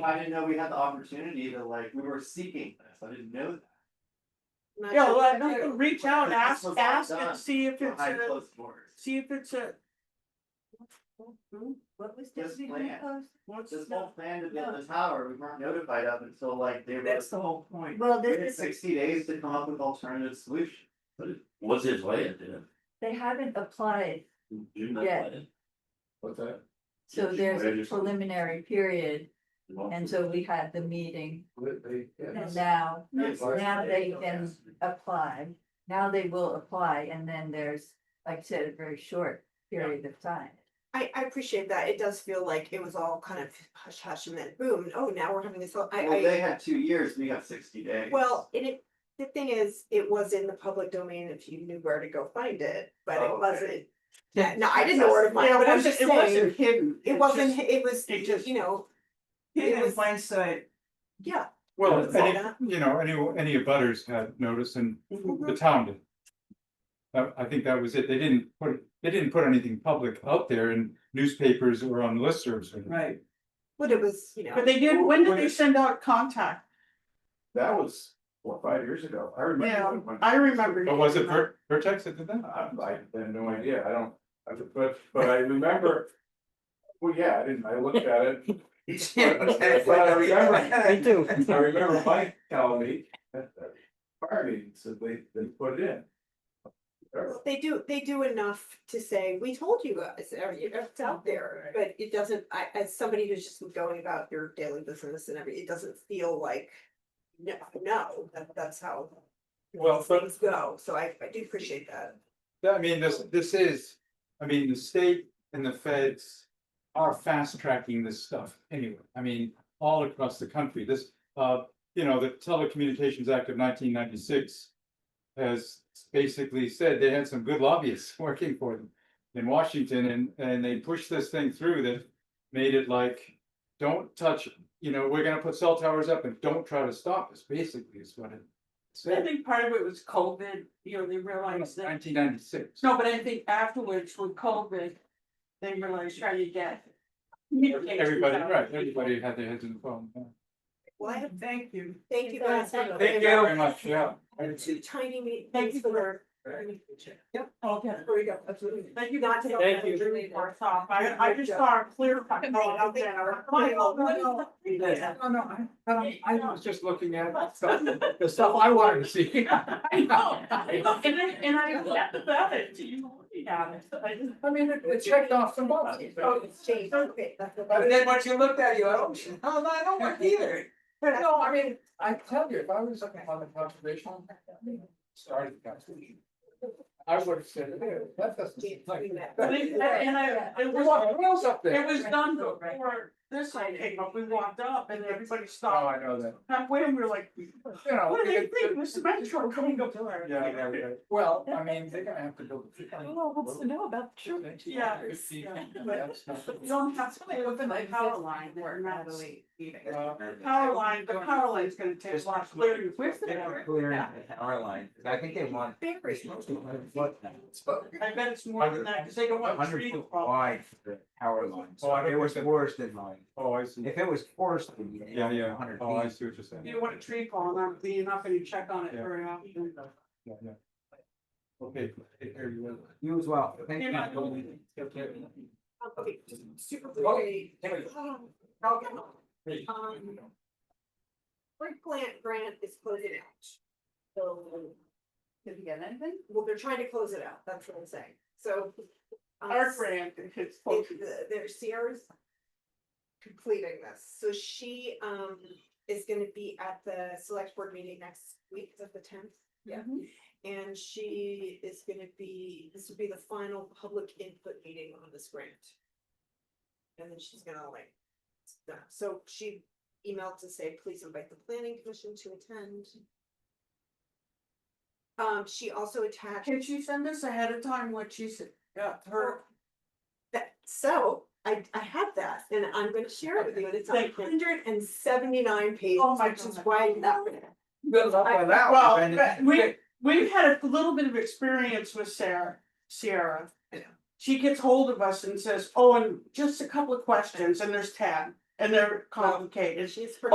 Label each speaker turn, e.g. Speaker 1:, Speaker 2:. Speaker 1: I didn't know we had the opportunity to like, we were seeking this, I didn't know that.
Speaker 2: Not
Speaker 3: Yeah,
Speaker 2: sure
Speaker 3: well,
Speaker 2: what to
Speaker 3: no,
Speaker 2: do.
Speaker 3: reach out,
Speaker 1: This
Speaker 3: ask,
Speaker 1: was
Speaker 3: ask
Speaker 1: done
Speaker 3: and see if it's
Speaker 1: Behind
Speaker 3: a,
Speaker 1: closed doors.
Speaker 3: see if it's a,
Speaker 2: Hmm? What was
Speaker 1: This
Speaker 2: this behind
Speaker 1: plan.
Speaker 2: post?
Speaker 3: what's,
Speaker 1: This whole plan to build the tower, we weren't notified of until like they were.
Speaker 3: that's the whole point.
Speaker 2: Well,
Speaker 1: We
Speaker 2: this
Speaker 1: had
Speaker 2: is,
Speaker 1: sixty days to come up with alternative solutions.
Speaker 4: What's his land, didn't?
Speaker 2: they haven't applied, Yeah.
Speaker 4: Yeah.
Speaker 5: What's that?
Speaker 2: so there's
Speaker 4: They
Speaker 2: a
Speaker 4: just-
Speaker 2: preliminary period, and so we had the meeting,
Speaker 5: What they- yeah.
Speaker 2: and now,
Speaker 1: Yes.
Speaker 2: now they can apply. Now they will apply, and then there's, like I said, a very short period of time.
Speaker 6: I, I appreciate that. It does feel like it was all kind of hush hush and then boom, oh, now we're having this, all-
Speaker 1: Well,
Speaker 6: I,
Speaker 1: they had two years, we got sixty
Speaker 6: I,
Speaker 1: days.
Speaker 6: well, and it, the thing is, it was in the public domain if you knew where to go find it, but
Speaker 1: Oh,
Speaker 6: it
Speaker 1: okay.
Speaker 6: wasn't. Yeah, no, I didn't know where to find
Speaker 3: Yeah,
Speaker 6: it,
Speaker 3: it
Speaker 6: but I'm
Speaker 3: wasn't-
Speaker 6: just
Speaker 3: it wasn't
Speaker 6: saying,
Speaker 3: Hidden.
Speaker 6: it
Speaker 3: It's
Speaker 6: wasn't,
Speaker 3: just
Speaker 6: it was,
Speaker 3: it just-
Speaker 6: you know, it
Speaker 3: Hidden in
Speaker 6: was-
Speaker 3: plain sight.
Speaker 6: yeah.
Speaker 7: Well,
Speaker 6: Is
Speaker 7: any,
Speaker 6: that-
Speaker 7: you know, any, any abutters had notice and
Speaker 3: Mm-hmm. Hmm.
Speaker 7: the town did. I, I think that was it. They didn't put, they didn't put anything public out there in newspapers or on listservs or. anything.
Speaker 3: Right,
Speaker 6: But it was, you know.
Speaker 3: but they did, when did they send out contact?
Speaker 5: That was, what, five years ago, I remember. when-
Speaker 3: I remember.
Speaker 7: But Oh, was it Ver- Vertex that did that?
Speaker 5: I I have no idea, I don't, I- but, but I remember. Well, yeah, I didn't, I looked at it. But I remember-
Speaker 3: Me too.
Speaker 5: I remember Mike telling me at the fire meeting, so they, they put it in. Or-
Speaker 6: They do, they do enough to say, we told you guys, or, you know, it's out there, but it doesn't, I, as somebody who's just going about your daily business and every, it doesn't feel like. No, no, that, that's how.
Speaker 7: Well, but-
Speaker 6: Things go, so I, I do appreciate that.
Speaker 7: Yeah, I mean, this, this is, I mean, the state and the feds are fast tracking this stuff anyway. I mean, all across the country, this, uh, you know, the Telecommunications Act of nineteen ninety-six has basically said they had some good lobbyists working for them in Washington and, and they pushed this thing through that made it like, don't touch, it. you know, we're gonna put cell towers up and don't try to stop us, basically is what it
Speaker 3: I
Speaker 7: said.
Speaker 3: think part of it was COVID, you know, they realized that.
Speaker 7: Nineteen ninety-six.
Speaker 3: No, but I think afterwards with COVID, they realized trying to get. communications
Speaker 7: Everybody,
Speaker 3: out.
Speaker 7: right, everybody had their heads in the phone. yeah.
Speaker 6: Well, I
Speaker 3: Thank you.
Speaker 6: thank you guys. for
Speaker 2: Thank
Speaker 6: going
Speaker 7: you
Speaker 6: about
Speaker 7: very much, yeah.
Speaker 6: the Two tiny meetings.
Speaker 3: Thank you
Speaker 6: for.
Speaker 3: Okay.
Speaker 6: There we go, absolutely.
Speaker 3: Thank you, not to help
Speaker 7: Thank you.
Speaker 3: everybody work off. I, I just saw a clear. cut Oh, going out there. Michael, what is-
Speaker 7: No, no, I, I don't- I was just looking at stuff, the stuff I wanted to see.
Speaker 3: I know, I know, and I, and I laughed about it, do you looking at it? I just-
Speaker 7: I mean, it- it checked off the box.
Speaker 6: Oh, it's changed, okay. that's what- Oh,
Speaker 7: But then once you looked at it, you, "Oh, I don't, I don't- I don't want either. But no, I mean, I tell you, if I was looking on the conservation, started the conservation. I would have said, "Ew, that doesn't seem like.
Speaker 3: But it- And and I, it
Speaker 7: There's
Speaker 3: was,
Speaker 7: what else up
Speaker 3: it
Speaker 7: there?
Speaker 3: was done before this I came up, we walked up and everybody
Speaker 7: Oh,
Speaker 3: stopped.
Speaker 7: I know that.
Speaker 3: Halfway, and we were like,
Speaker 7: You know,
Speaker 3: what do they
Speaker 7: it-
Speaker 3: think,
Speaker 7: it-
Speaker 3: Mr. Metro coming up there?
Speaker 7: Yeah, yeah, yeah. well, I mean, they're gonna have to build.
Speaker 3: Well, what's to know about the church? Yeah. yeah, but You don't have to play with the power line, we're not The power line, the power line's gonna take a lot of clearing. Where's the power?
Speaker 8: Power line, 'cause I think they want.
Speaker 6: Very.
Speaker 3: I bet it's more than that, cause they don't want to
Speaker 8: Hundred
Speaker 3: treat
Speaker 8: foot wide for the power line,
Speaker 7: Oh,
Speaker 8: so
Speaker 7: I
Speaker 8: if it
Speaker 7: don't
Speaker 8: was
Speaker 7: think that-
Speaker 8: worse than mine,
Speaker 7: Oh, I see.
Speaker 8: if it was forced, then you'd
Speaker 7: Yeah,
Speaker 8: have
Speaker 7: yeah.
Speaker 8: hundred
Speaker 7: Oh, I
Speaker 8: feet.
Speaker 7: see what you're saying.
Speaker 3: You don't want a tree falling on, it, you're not gonna check on it
Speaker 7: Yeah.
Speaker 3: very often.
Speaker 7: Yeah, yeah. Okay. here you go.
Speaker 8: You as well. Thank
Speaker 3: You're
Speaker 8: you.
Speaker 3: not going.
Speaker 6: Oh, Okay, just super Oh, briefly. Um, Brick plant grant is closing out. So,
Speaker 3: Did you get anything?
Speaker 6: well, they're trying to close it out, that's what I'm saying, so. um,
Speaker 3: Our brand, it's.
Speaker 6: if the- Their Sierra's completing this, so she um is gonna be at the select board meeting next week, is that the tenth? Yeah. And she is gonna be, this will be the final public input meeting on this grant. And then she's gonna like, stuff. so she emailed to say, please invite the planning commission to attend. Um, she also attached.
Speaker 3: Can she send us ahead of time what she said, yeah, her,
Speaker 6: That, so I, I have that and I'm gonna share it with you and it's
Speaker 3: Thank you.
Speaker 6: hundred and seventy-nine pages,
Speaker 3: Oh my
Speaker 6: which is
Speaker 3: God.
Speaker 6: why that.
Speaker 8: Build up on that.
Speaker 3: Well,
Speaker 8: one,
Speaker 3: but
Speaker 8: then-
Speaker 3: we, we've had a little bit of experience with Sarah, Sierra. She gets hold of us and says, oh, and just a couple of questions, and there's ten,
Speaker 9: and they're complicated.
Speaker 3: She's pretty